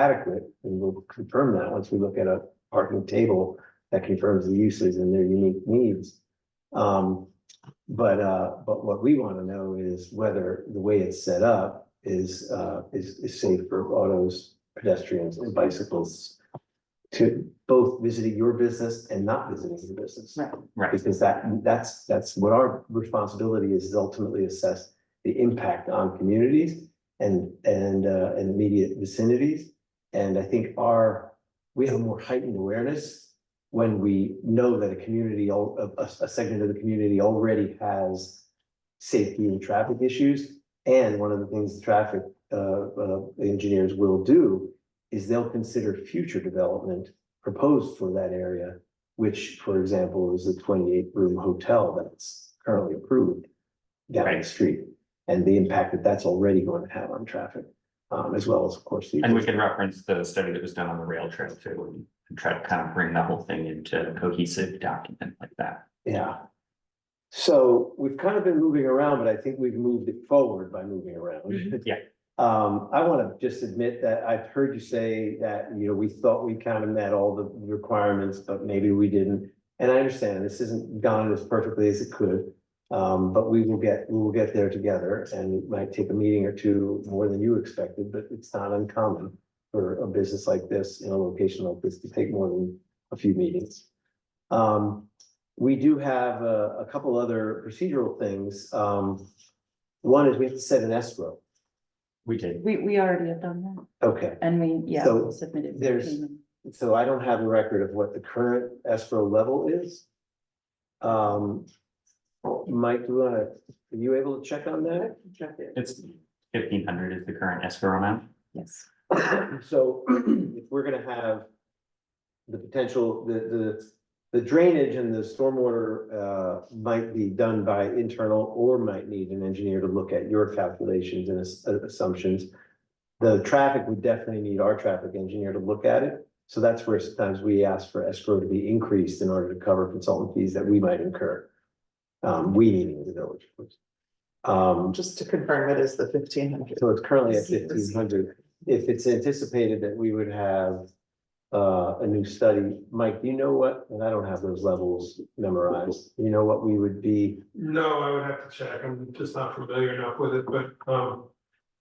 adequate, and we'll confirm that once we look at a parking table that confirms the uses and their unique needs. Um, but, uh, but what we want to know is whether the way it's set up is, uh, is, is safe for autos, pedestrians and bicycles to both visiting your business and not visiting your business. Right. Right. Because that, that's, that's what our responsibility is, is ultimately assess the impact on communities and, and, uh, and immediate vicinities. And I think our, we have more heightened awareness when we know that a community, al- a, a- a segment of the community already has safety and traffic issues. And one of the things the traffic, uh, uh, engineers will do is they'll consider future development proposed for that area, which, for example, is a twenty-eight room hotel that's currently approved down the Right. street, and the impact that that's already going to have on traffic, um, as well as, of course, the. And we can reference the study that was done on the rail trail too, and try to kind of bring the whole thing into a cohesive document like that. Yeah. So we've kind of been moving around, but I think we've moved it forward by moving around. Mhm. Yeah. Um, I want to just admit that I've heard you say that, you know, we thought we kind of met all the requirements, but maybe we didn't. And I understand this isn't gone as perfectly as it could. Um, but we will get, we will get there together and it might take a meeting or two more than you expected, but it's not uncommon for a business like this, in a location like this, to take more than a few meetings. Um, we do have a, a couple other procedural things. Um, one is we have to set an escrow. We did. We, we already have done that, Okay, and we, yeah, So submitted. there's- payment. so I don't have a record of what the current escrow level is. Um, Mike, do you wanna, are you able to check on that? It's fifteen hundred is the current oh escrow amount. Yes, So if we're gonna have the potential, the, the, the drainage and the stormwater, uh, might be done by internal or might need an engineer to look at your calculations and ass- uh, assumptions. The traffic, we definitely need our traffic engineer to look at it. So that's where sometimes we ask for escrow to be increased in order to cover consultant fees that we might incur. Um, we meaning the village, of course. Um, Just to confirm, it is the fifteen hundred. so it's currently at Let's see, let's see. fifteen hundred. If it's anticipated that we would have uh, a new study, Mike, do you know what, and I don't have those levels memorized, you know what we would be? No, I would have to check. I'm just not familiar enough with it, but um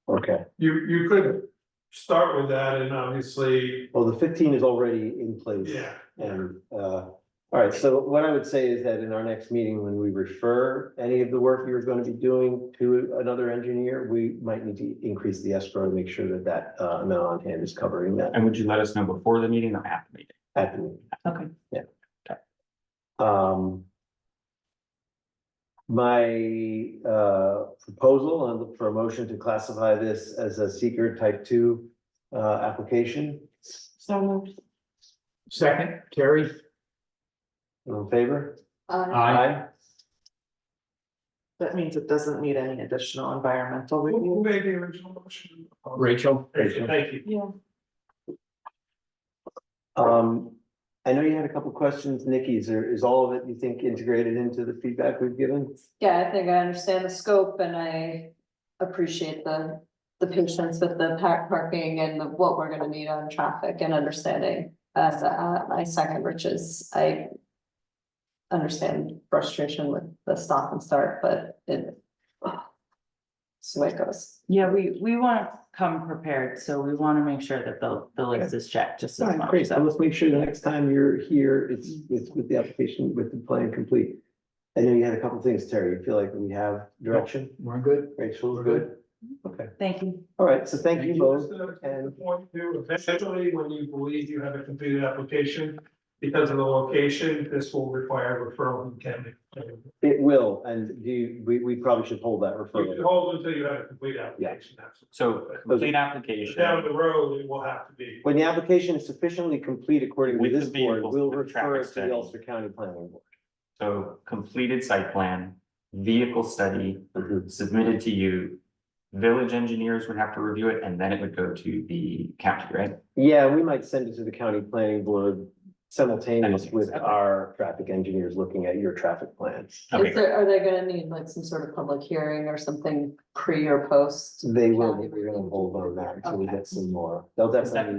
Okay, you you could start with that and obviously, well, the fifteen is already in place. yeah. And, uh, all right, so what I would say is that in our next meeting, when we refer any of the work you're gonna be doing to another engineer, we might need to increase the escrow to make sure that that, uh, amount on hand is covering that And would you let us know before the meeting or after the meeting? at the meeting. okay. Um. My uh proposal and for a motion to classify this as a seeker type two uh application, So moved. Second, Carrie? All in favor? Uh, That means it doesn't need any additional environmental Who who review. made the original motion? Rachel. Rachel, Thank you. Yeah. Um, I know you had a couple questions, Nikki, is there, is all of it, you think, integrated into the feedback we've given? Yeah, I think I understand the scope and I appreciate the, the patience with the pack parking and the- what we're gonna need on traffic and understanding. As uh, I second Rich's, I understand frustration with the stop and start, but it. It's the way it goes. Yeah, we, we want to come prepared, so we want to make sure that the, the list is checked just as Alright, much. great, so so- let's make sure the next time you're here, it's, it's with the application, with the plan complete. I know you had a couple things, Terry, you feel like we have direction, We're good. Rachel's good, okay. Thank you. All right, so thank you both. Just a- and- The point too, eventually, when you believe you have a completed application, because of the location, this will require referral and can be. It will, and do you, we, we probably should hold that You can referral. hold until you have a complete application, absolutely. So complete application. Down the road, it will have to be. When the application is sufficiently complete according to With this the board, vehicles we'll and the refer traffic it to the study. Ulster County Planning So completed site plan, vehicle study Board. submitted to you. Village engineers would have to review it and then it would go to the county, right? Yeah, we might send it to the county planning board simultaneous with Okay. our traffic engineers looking at your traffic plans. Okay, Is there, are they gonna need like some sort of public hearing or something pre or post? They will, County we're gonna hold on that until we Okay. get some more. They'll Is that- definitely